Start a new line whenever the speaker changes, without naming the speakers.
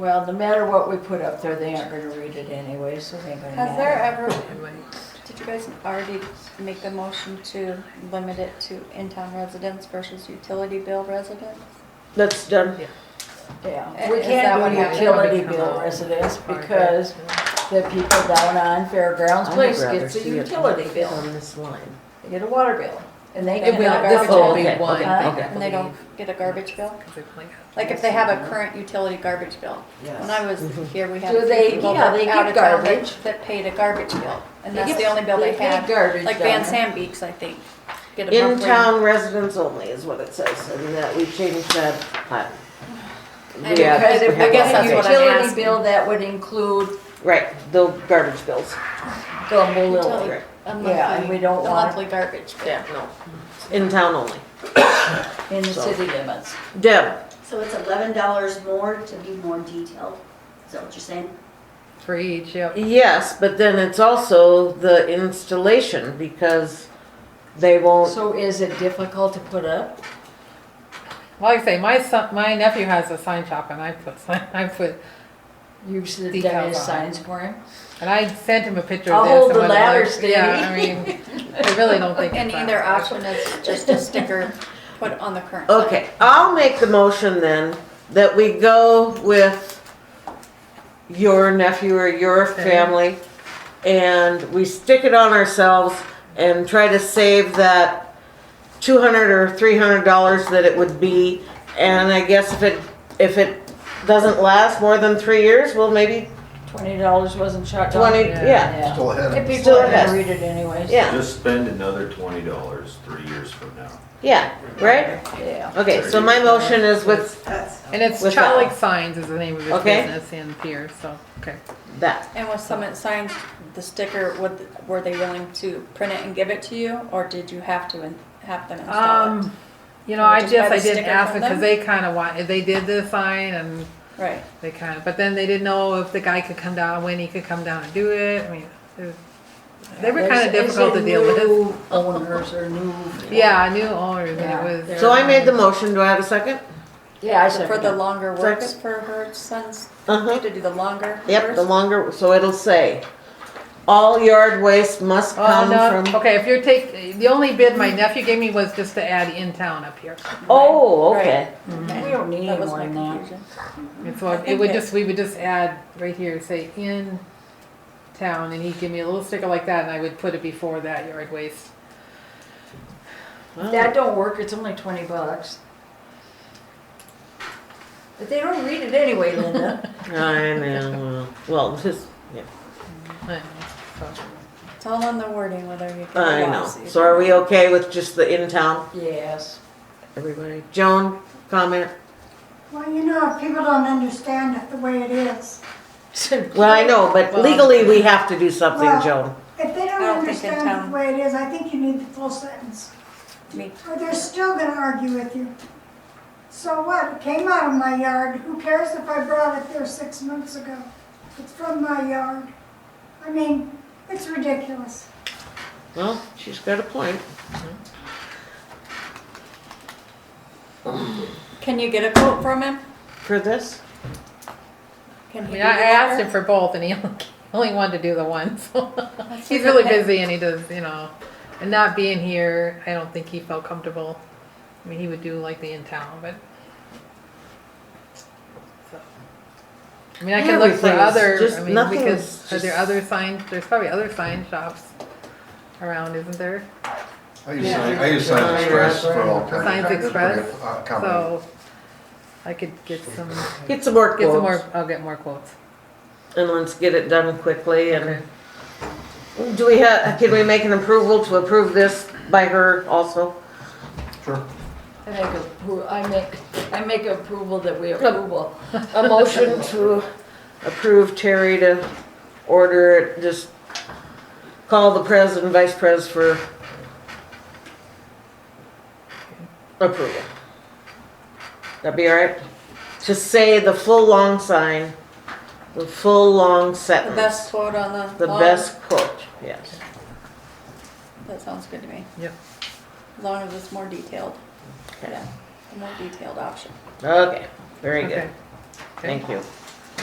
Well, no matter what we put up there, they aren't gonna read it anyway, so it ain't gonna
Has there
matter.
ever, did you guys already make the motion to limit it to in-town residents versus utility bill residents?
That's done.
Yeah, we
Is that
can't
what
do
happened?
utility bill residents because the people down on Fairgrounds Place gets a utility bill,
On this line.
they get a water bill. And they
It
get
will
a
be
garbage
full,
bill.
okay, okay,
Huh?
okay.
And they don't get a garbage bill?
Like
Like if they have a current utility garbage bill? When I was here, we had
Do
a
they-
few people
yeah,
that
they
out
get
of town
garbage.
that, that paid a garbage bill. And
They
that's
get-
the only bill they
get
had.
Garbage.
Like Van
down.
Sam Beeks, I think. get a monthly-
In-town residents only is what it says, and that we changed that. uh,
I
yeah,
Because if
we
we get
guess
have
a
that
that's what I'm
utility
asking.
bill, that would include
thing. Right, the garbage bills.
Gumbo
Utility-
Lily.
Right.
A
Yeah, and we
monthly,
don't
a
want-
monthly garbage bill.
Yeah, no. In-town only.
in the
So-
city limits.
Deb,
So it's eleven dollars more to be more detailed, is that what you're saying?
For each, yep.
yes, but then it's also the installation because they won't,
So is it difficult to put up?
Like I say, my son, my nephew has a sign shop and I put, sign- I put,
You've done
Decals on
his
it.
signs for him?
and I sent him a picture
I'll
of this.
hold
and
the
what it
ladder,
looks- Yeah, I mean, I really don't think.
And
it's that
either
much.
option is just a sticker put on the current. bill.
okay, I'll make the motion then that we go with your nephew or your family and we stick it on ourselves and try to save that two hundred or three hundred dollars that it would be. And I guess if it, if it doesn't last more than three years, well, maybe
Twenty dollars wasn't shot down?
twenty,
Yeah.
Oh, yeah,
Yeah.
Still ahead
If
of us.
people
Still
are
has-
gonna read it anyways.
yeah,
Just spend another twenty dollars three years from now.
yeah, right?
Yeah.
Okay, so my motion is with
And it's
With that.
Chalik Signs is the name of his
Okay.
business in Pierce, so, okay.
that.
And with Summit Signs, the sticker, would, were they willing to print it and give it to you, or did you have to in- have them install it?
Um, you know,
Or
I
just
guess
buy
I
the
didn't
sticker
ask
from
them because
them?
they kind of want, they did the sign and
Right,
they kind of, but then they didn't know if the guy could come down, when he could come down and do it. I mean, it was- they were kind of difficult to deal with.
New owners or new.
Yeah, I knew owners
Yeah,
and it was.
So I made the motion, do I have a second?
Yeah, I
So for
second
the
it.
longer work,
Sex.
for her sons,
Uh-huh.
to do the longer.
Yep, the
works?
longer, so it'll say, all yard waste must
Oh,
come
no,
from.
okay, if you're take, the only bid my nephew gave me was just to add in town up here.
Oh, okay,
We don't need
That
any
was
more
my
than that.
confusion.
And so it would just, we would just add right here, say in town, and he'd give me a little sticker like that and I would put it before that yard waste.
That don't work, it's only twenty bucks. But they don't read it anyway, Linda.
I know, well, just, yeah,
I don't know, so.
It's all on the wording, whether you.
I
Yeah,
know,
see.
so are we okay with just the in-town,
Yes.
everybody? Joan, comment?
Well, you know, if people don't understand it the way it is,
Well, I know, but
Well-
legally we have to do something,
Well-
Joan.
if they
I
don't
don't think in
understand it
town-
the way it is, I think you need the full sentence,
Me.
or they're still gonna argue with you. So what, it came out of my yard, who cares if I brought it there six months ago? It's from my yard. I mean, it's ridiculous.
Well, she's got a point.
Can you get a quote from him?
For this,
Can
I
he
mean,
do
I I
the
asked
longer?
him for both, and he only- only wanted to do the one. So he's
okay.
really busy, and he does, you know, and not being here, I don't think he felt comfortable. I mean, he would do like the in town, but. so. I mean, I could look for
Everything is
other.
just-
I mean,
nothing
because
is
are there
just-
other sign? There's probably other sign shops around, isn't there?
I use, Sign- I use Signs Express for all kinds of.
Signs
kinds of
Express?
creative, uh, comedy.
So I could get some, get
get some more
some more.
quotes,
I'll get more quotes.
and let's get it done quickly, and do we have, can we make an approval to approve this by her also?
Sure.
I make appro, I make, I make approval that we approval. A motion to,
approve Terry to order it, just call the pres and vice pres for approval. That'd be all right? To say the full long sign, the full long
The
sentence,
best quote on the.
the
long-
best quote, yes.
That sounds good to me.
Yep.
As long as it's more detailed.
Okay.
Yeah, a more detailed option.
Okay, very good,
Okay.
thank you.